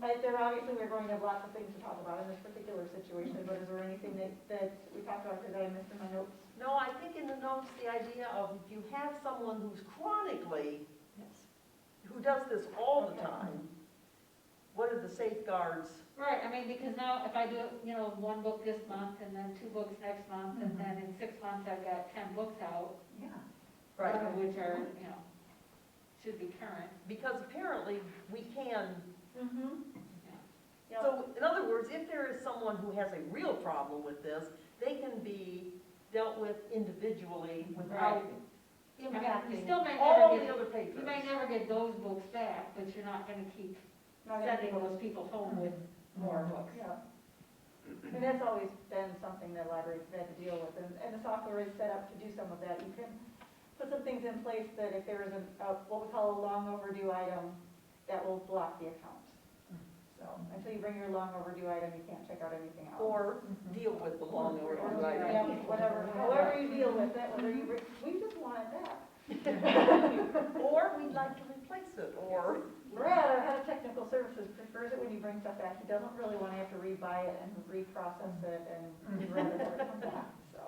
But there obviously, we're going to have lots of things to talk about in this particular situation, but is there anything that, that we talked about today, Mr. My notes? No, I think in the notes, the idea of if you have someone who's chronically, who does this all the Okay. time, what are the safeguards? Right, I mean, because now if I do, you know, one book this month and then two books next month, Mm-hmm. and then in six months I've got ten books out, Yeah. some Right, of which are, you know, should be current. because apparently we can, Mm-hmm. Yeah, so in other words, if there is someone who has a real problem with this, they can be dealt with individually without I mean, you impacting still may all never the get, other you papers. may never get those books back, but you're not gonna keep not gonna be sending able those people home with Mm-hmm. more books. Yeah. And that's always been something that libraries have had to deal with, and, and the software is set up to do some of that. You can put some things in place that if there is a, a- what we call a long overdue item, that will block the account. So, until you bring your long overdue item, you can't check out anything else. Or deal with the long Or, overdue item. yeah, Whatever, however you deal with it, whether you, bring- we just wanted that. Or we'd like to replace it, or, Brad, our head of technical services, prefers it when you bring stuff back. He doesn't really want to have to rebuy it and reprocess it and he'd rather have it come back, so.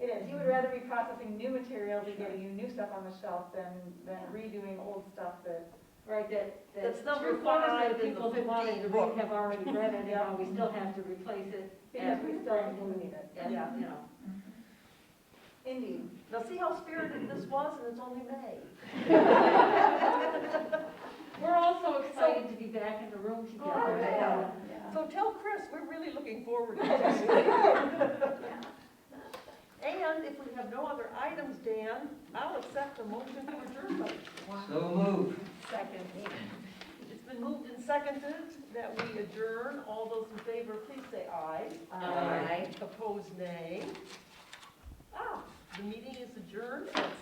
It is. He would rather be processing new material than getting you new stuff on the shelf than, than redoing old stuff that, Right, that, that That's number three quarters five in of the the people who wanted to 15 read book. have already read it, and now we still have to replace it, because we still do need it. and, you Yeah. know. Indeed. now see how spirited this was, and it's only May. We're also excited to be back in the room together. Oh, yeah. Yeah. So tell Chris, we're really looking forward to this. And if we have no other items, Dan, I'll accept the motion for adjournment. So moved. Second. It's been moved and seconded that we adjourn. All those in favor, please say aye. Aye. Opposed, nay. Ah, the meeting is adjourned at